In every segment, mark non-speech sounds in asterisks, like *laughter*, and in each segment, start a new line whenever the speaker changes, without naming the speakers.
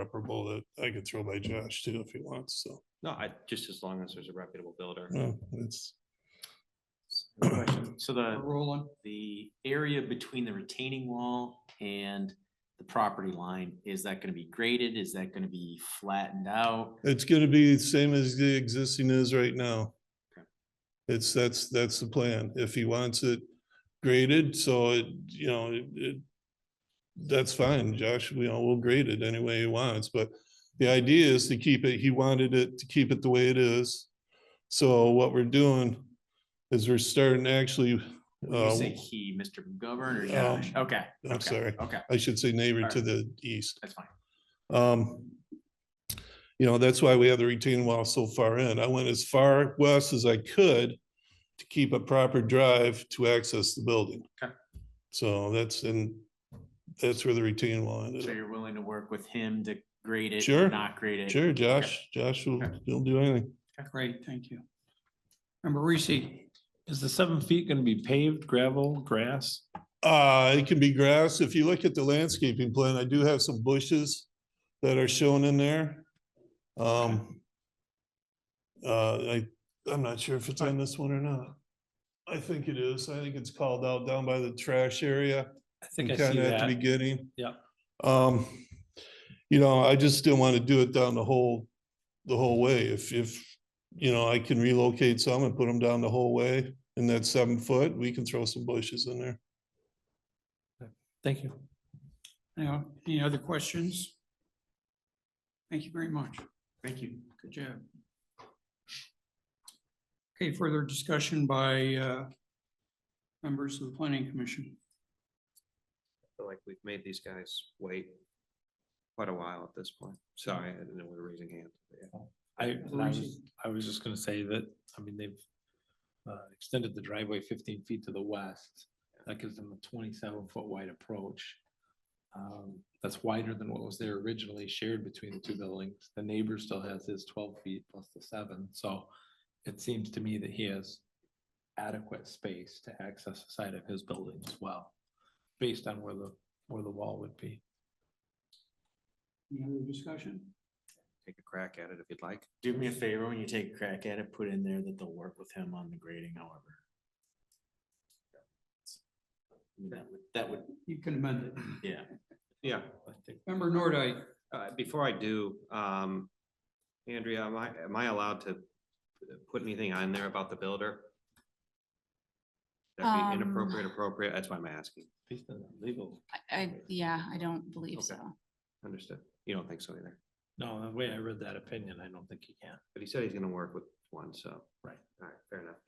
reparable that I could throw by Josh too if he wants, so.
No, I, just as long as there's a reputable builder.
yeah, It's,
Good question. So the,
Rolling.
the area between the retaining wall and the property line, is that gonna be graded? Is that gonna be flattened out?
it's gonna be the same as the existing is right now.
Okay.
It's, that's, that's the plan. If he wants it graded, so it, you know, it, it- that's fine, Josh, we all will grade it any way he wants, but the idea is to keep it, he wanted it to keep it the way it is. So what we're doing is we're starting actually,
When
uh,
you say he, Mr. McGovern or
um,
Josh? Okay.
I'm
okay,
sorry.
Okay,
I should say neighbor to
Alright.
the east.
that's fine.
Um, you know, that's why we have the retaining wall so far in. I went as far west as I could to keep a proper drive to access the building.
Okay.
So that's, and that's where the retaining wall ended.
So
up.
you're willing to work with him to grade it,
Uh, Sure,
not grade it?
Sure, Josh, Josh will,
Okay.
he'll do anything.
Great, thank you. Member Reese,
Is the seven feet gonna be paved, gravel, grass?
Uh, it can be grass. If you look at the landscaping plan, I do have some bushes that are shown in there. Um. Uh, I, I'm not sure if it's on this one or not. I think it is. I think it's called out down by the trash area.
I think I see
Kind of at the
that.
beginning.
Yeah.
Um, you know, I just didn't want to do it down the whole, the whole way. If, if, you know, I can relocate some and put them down the whole way in that seven foot, we can throw some bushes in there.
Thank you.
now, any other questions? Thank you very much.
Thank you.
Good job. Okay, further discussion by uh, members of the planning commission.
feel like we've made these guys wait quite a while at this point. Sorry, I didn't know we were raising hands. but yeah.
I, and I was,
Reason.
I was just gonna say that, I mean, they've uh, extended the driveway fifteen feet to the west. That gives them a twenty-seven foot wide approach. Um, That's wider than what was there originally shared between the two buildings. The neighbor still has his twelve feet plus the seven, so it seems to me that he has adequate space to access the side of his building as well, based on where the, where the wall would be.
Any other discussion?
Take a crack at it if you'd like.
Do me a favor, when you take a crack at it, put in there that they'll work with him on the grading however. I mean, That would, that would,
You can amend it.
yeah.
Yeah,
I think
Member Nordike,
uh, before I do, um, Andrea, am I, am I allowed to put anything on there about the builder? That'd
Um,
be inappropriate, appropriate, that's why I'm asking.
Based on the legal.
I- I, yeah, I don't believe
Okay.
so.
Understood. You don't think so either,
No, the way I read that opinion, I don't think you can.
but he said he's gonna work with one, so.
Right.
All right, fair enough.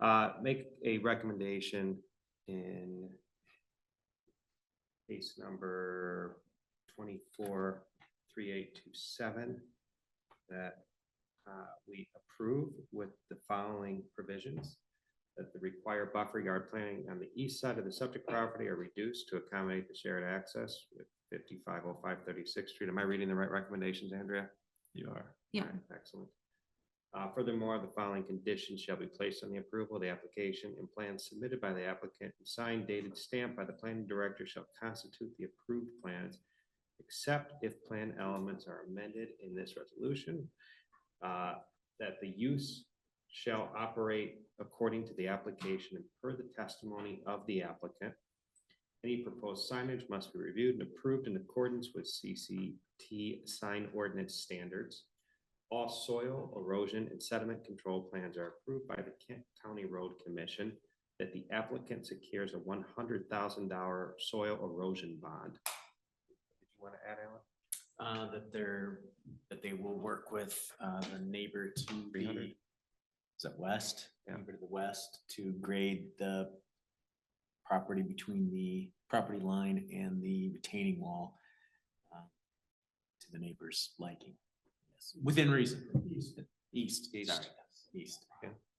Uh, make a recommendation in case number twenty-four, three, eight, two, seven, that uh, we approve with the following provisions. That the required buffer yard planning on the east side of the subject property are reduced to accommodate the shared access with fifty-five oh five thirty-sixth Street. Am I reading the right recommendations, Andrea?
You are.
Yeah.
Alright, Excellent. Uh, furthermore, the following conditions shall be placed on the approval of the application and plans submitted by the applicant and signed dated stamped by the planning director shall constitute the approved plans. Except if plan elements are amended in this resolution. uh, that the use shall operate according to the application and per the testimony of the applicant. Any proposed signage must be reviewed and approved in accordance with CCT sign ordinance standards. All soil erosion and sediment control plans are approved by the Kent County Road Commission that the applicant secures a one hundred thousand dollar soil erosion bond. Did you want to add, Alan?
Uh, that they're, that they will work with, uh, the neighbor to
300.
the, is it west?
Yeah.
Neighbor to the west to grade the property between the property line and the retaining wall uh, to the neighbor's liking. Yes, Within reason. East,
East.
sorry, east.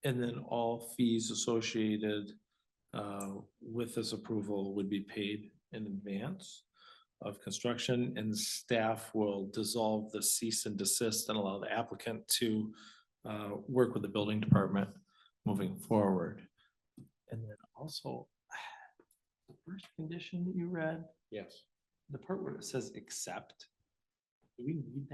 And then all fees associated uh, with this approval would be paid in advance of construction and staff will dissolve the cease and desist and allow the applicant to uh, work with the building department moving forward. And then also, *sighs* the first condition that you read,
Yes.
the part where it says accept, Do we need that?